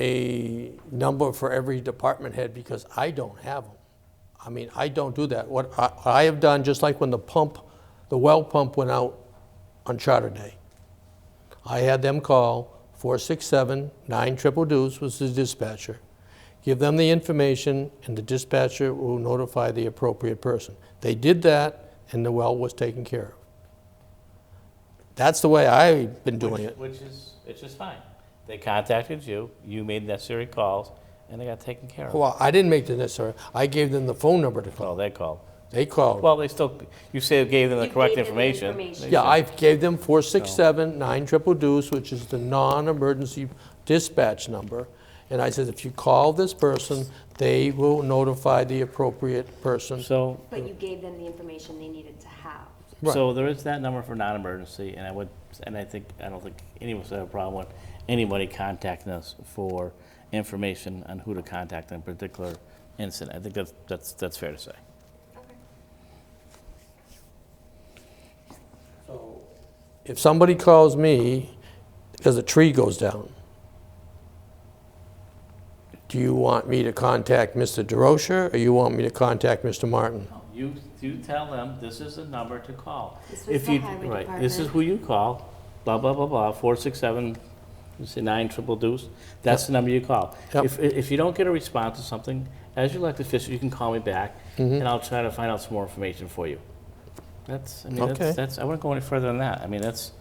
a number for every department head because I don't have them. I mean, I don't do that. What I, I have done, just like when the pump, the well pump went out on Charter Day, I had them call 467 9 triple deuce was the dispatcher. Give them the information, and the dispatcher will notify the appropriate person. They did that, and the well was taken care of. That's the way I've been doing it. Which is, which is fine. They contacted you, you made necessary calls, and they got taken care of. Well, I didn't make the necessary. I gave them the phone number to call. Well, they called. They called. Well, they still, you say you gave them the You correct gave them the information. information. They Yeah, said- I gave them 467 9 triple deuce, which is the non-emergency dispatch number. And I said, if you call this person, they will notify the appropriate person. So, But you gave them the information they needed to have. Right. so there is that number for non-emergency, and I would, and I think, I don't think any of us have a problem with anybody contacting us for information on who to contact in a particular incident. I think that's, that's, that's fair to say. If somebody calls me because a tree goes down, do you want me to contact Mr. DeRocher or you want me to contact Mr. Martin? You, you tell them, this is the number to call. This was If the you highway right, This is department. who you call, blah, blah, blah, blah, four, six, seven, you say nine, triple deuce, that's the number you call. Yep. If, if you don't get a response to something, as your elected official, you can call me back, Mm-hmm. and I'll try to find out some more information for you. That's, I mean, Okay. that's, that's, I wouldn't go any further than that. I mean, that's,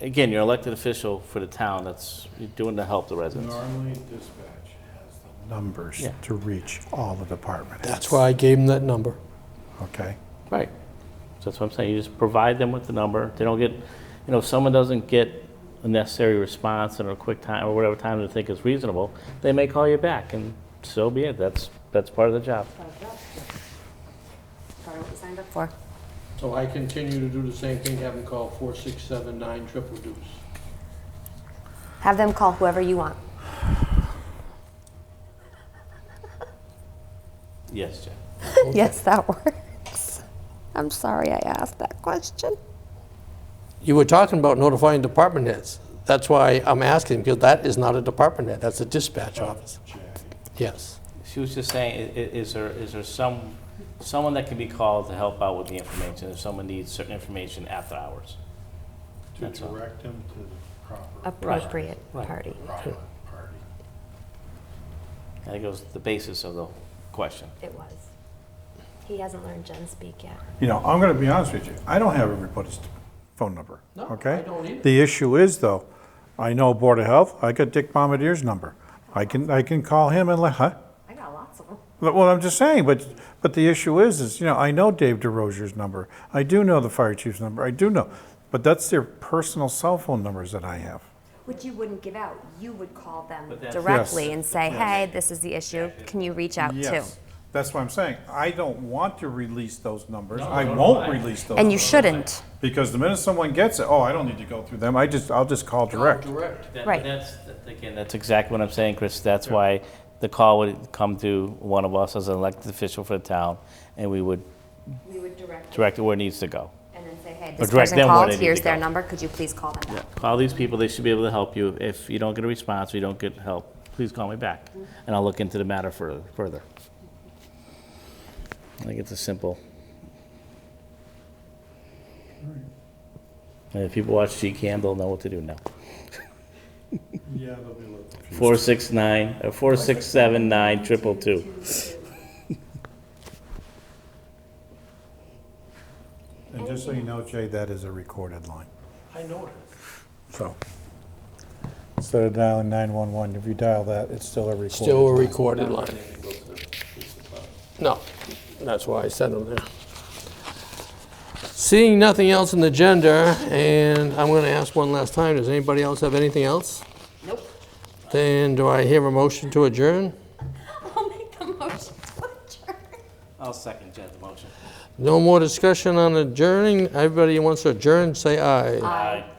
again, you're an elected official for the town, that's, you're doing to help the residents. Normally dispatch has the numbers Yeah. to reach all the department heads. That's why I gave them that number. Okay, Right. So that's what I'm saying, you just provide them with the number, they don't get, you know, if someone doesn't get a necessary response in a quick time, or whatever time they think is reasonable, they may call you back, and so be it, that's, that's part of the job. Part of what we signed up for. So I continue to do the same thing, have them call 467 9 triple deuce. Have them call whoever you want. Yes, Jeff. Yes, that works. I'm sorry I asked that question. You were talking about notifying department heads. That's why I'm asking, because that is not a department head, that's a dispatch office. Yes. She was just saying, i- i- is there, is there some, someone that can be called to help out with the information, if someone needs certain information after hours? to That's all. direct them to the proper Appropriate Right. party. private party. I think it was the basis of the question. It was. He hasn't learned Gen speak yet. You know, I'm gonna be honest with you, I don't have everybody's phone number, No, I okay? don't either. The issue is though, I know Board of Health, I got Dick Bombadier's number. I can, I can call him and let, huh? I got lots of them. But Well, I'm just saying, but, but the issue is, is, you know, I know Dave DeRozier's number. I do know the fire chief's number. I do know. But that's their personal cell phone numbers that I have. Which you wouldn't give out. You would call them But that's- directly Yes. and say, hey, this is the issue. Can you reach out to? That's what I'm saying. I don't want to release those numbers. I no, no, won't I- release those. And you numbers. shouldn't. Because the minute someone gets it, oh, I don't need to go through them. I just, I'll just call direct. Correct. That- Right. That's, that- again, that's exactly what I'm saying, Chris. That's why the call would come to one of us as an elected official for the town, and we would We would direct direct it where it needs to go. and then say, hey, Or this direct person them where called. they need to Here's their go. number. Could you please call them back? Call these people, they should be able to help you. If you don't get a response, or you don't get help, please call me back, and I'll look into the matter fur- further. I think it's a simple. And if people watch GCAM, they'll know what to do now. Yeah, they'll be looking. Four six nine, uh, four six seven nine triple two. And just so you know, Jay, that is a recorded line. I know it. So. Instead of dialing 911, if you dial that, it's still a recorded Still a line. recorded line. No, that's why I sent them there. Seeing nothing else in the agenda, and I'm going to ask one last time, does anybody else have anything else? Nope. Then do I hear a motion to adjourn? I'll make the motion to adjourn. I'll second Jed's motion. No more discussion on adjourning. Everybody who wants to adjourn, say aye. Aye.